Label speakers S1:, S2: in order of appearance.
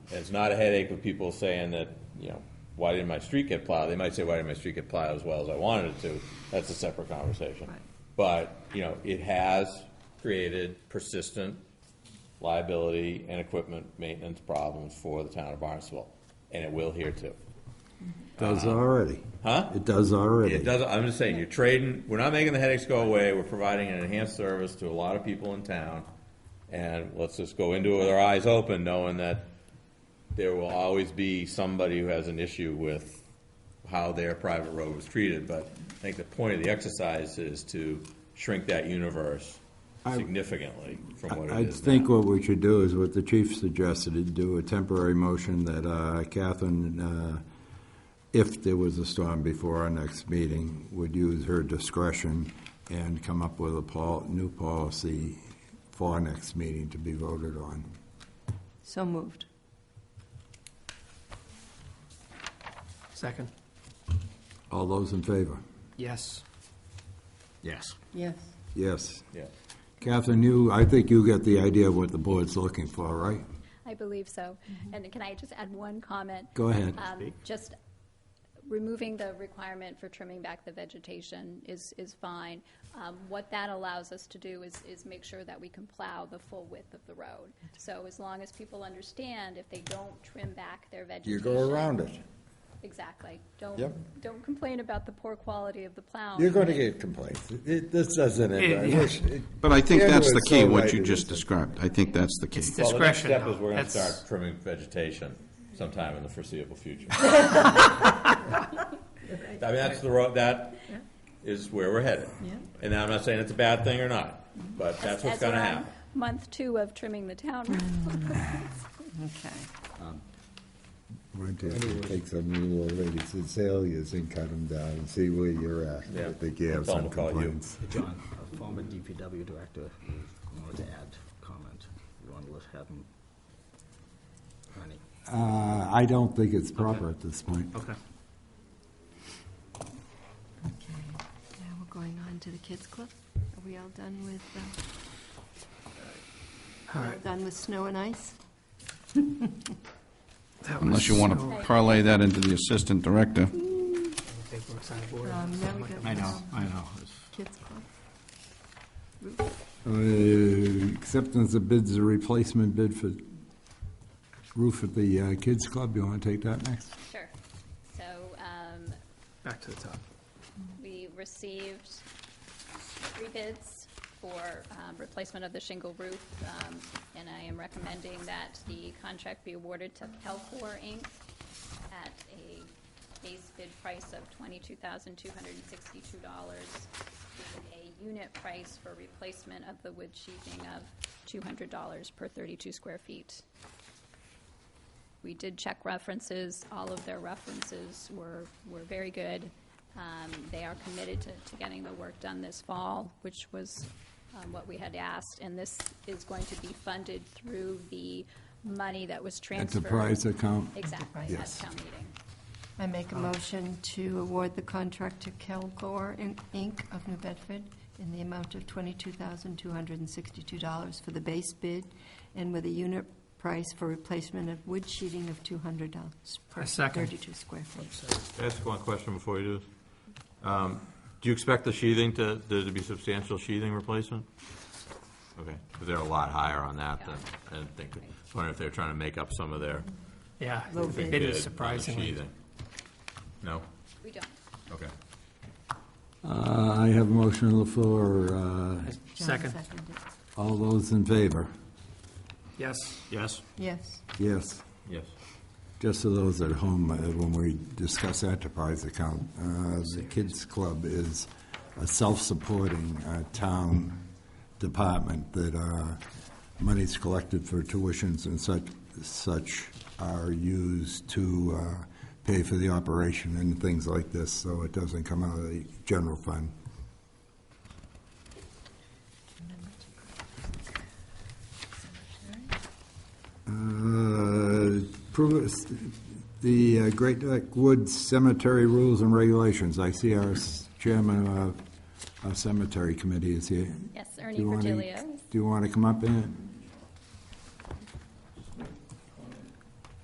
S1: And it's not a headache with people saying that, you know, why didn't my street get plowed? They might say, why didn't my street get plowed as well as I wanted it to? That's a separate conversation.
S2: Right.
S1: But, you know, it has created persistent liability and equipment maintenance problems for the town of Barnstable, and it will here too.
S3: Does already.
S1: Huh?
S3: It does already.
S1: It doesn't, I'm just saying, you're trading, we're not making the headaches go away, we're providing an enhanced service to a lot of people in town. And let's just go into it with our eyes open, knowing that there will always be somebody who has an issue with how their private road was treated. But I think the point of the exercise is to shrink that universe
S3: I-
S1: significantly from what it
S3: I I
S1: is
S3: think
S1: now.
S3: what we should do is what the chief suggested, is do a temporary motion that uh, Catherine, uh, if there was a storm before our next meeting, would use her discretion and come up with a pol, new policy for our next meeting to be voted on.
S2: So moved.
S4: Second.
S3: All those in favor?
S4: Yes. Yes.
S2: Yes.
S3: Yes.
S1: Yeah.
S3: Catherine, you, I think you get the idea of what the board's looking for, right?
S5: I believe so. And can I just add one comment?
S3: Go ahead.
S5: Um, Just removing the requirement for trimming back the vegetation is, is fine. Um, What that allows us to do is, is make sure that we can plow the full width of the road. So as long as people understand, if they don't trim back their vegetation.
S3: You go around it.
S5: Exactly.
S3: Yep.
S5: Don't, don't complain about the poor quality of the plow.
S3: You're going to get complaints. It- This doesn't end. I
S4: Yeah.
S3: wish it-
S6: But I think that's the
S3: Everyone's
S6: key,
S3: so
S6: what
S3: right
S6: you
S3: it
S6: just
S3: isn't.
S6: described. I think that's the key.
S4: It's
S1: Well, the next
S4: discretion,
S1: step
S4: though.
S1: is we're gonna
S4: That's-
S1: start trimming vegetation sometime in the foreseeable future. I mean, that's the road, that is where we're headed.
S2: Yeah.
S1: And I'm not saying it's a bad thing or not, but Mm-hmm. that's what's
S5: As we're
S1: gonna
S5: on
S1: happen.
S5: Month two of trimming the town.
S2: Okay.
S7: Why don't you take some of the old ladies' azaleas and cut them down and see where you're at.
S1: Yeah.
S7: I think you have
S1: Tom
S7: some
S1: will call you.
S7: complaints.
S8: John, a former DPW director, who wanted to add comment. You want to have him? Ernie.
S3: Uh, I don't think it's proper at this point.
S4: Okay.
S2: Okay. Now we're going on to the kids' club. Are we all done with, uh,
S4: All
S2: we're
S4: right.
S2: done with snow and ice?
S4: That
S6: Unless
S4: was
S6: you want
S4: so-
S6: to parlay that into the assistant director.
S4: Big works on the board.
S2: Um, now we got-
S8: I know, I know. It's-
S2: Kids' club?
S3: Uh, Acceptance of bids, a replacement bid for roof at the uh, kids' club. You want to take that next?
S5: Sure. So, um,
S4: Back to the top.
S5: We received three bids for um, replacement of the shingle roof, um, and I am recommending that the contract be awarded to Kelcor Inc. at a base bid price of twenty-two thousand two hundred and sixty-two dollars, with a unit price for replacement of the wood sheathing of two hundred dollars per thirty-two square feet. We did check references. All of their references were, were very good. Um, They are committed to, to getting the work done this fall, which was um, what we had asked. And this is going to be funded through the money that was transferred.
S3: Enterprise account?
S5: Exactly, at
S3: Yes.
S5: town meeting.
S2: I make a
S8: Oh.
S2: motion to award the contract to Kelgore In- Inc. of New Bedford in the amount of $22,262 for the base bid and with a unit price for replacement of wood sheeting of $200 per
S4: I second.
S2: 32 square feet.
S1: Ask one question before you do this. Um, Do you expect the sheathing to, there to be substantial sheathing replacement? Okay, because they're a lot higher on that than, I didn't think, I wonder if they're trying to make up some of their
S4: Yeah.
S2: Little
S4: It
S2: bit.
S1: bid on
S4: is
S1: the
S4: surprisingly.
S1: sheathing. No?
S5: We don't.
S1: Okay.
S3: Uh, I have a motion on the floor. Uh,
S2: John
S4: Second.
S2: seconded it.
S3: All those in favor?
S4: Yes.
S1: Yes.
S2: Yes.
S3: Yes.
S1: Yes.
S3: Just to those at home, uh, when we discuss enterprise account, uh, the Kids Club is a self-supporting uh, town department that uh, monies collected for tuitions and such, such are used to uh, pay for the operation and things like this, so it doesn't come out of the general fund. Uh, approve it- The uh, Great Neck Woods Cemetery Rules and Regulations. I see our s- chairman of our cemetery committee is here.
S5: Yes, Ernie
S3: Do you wanna-
S5: Virgilio.
S3: Do you want to come up in?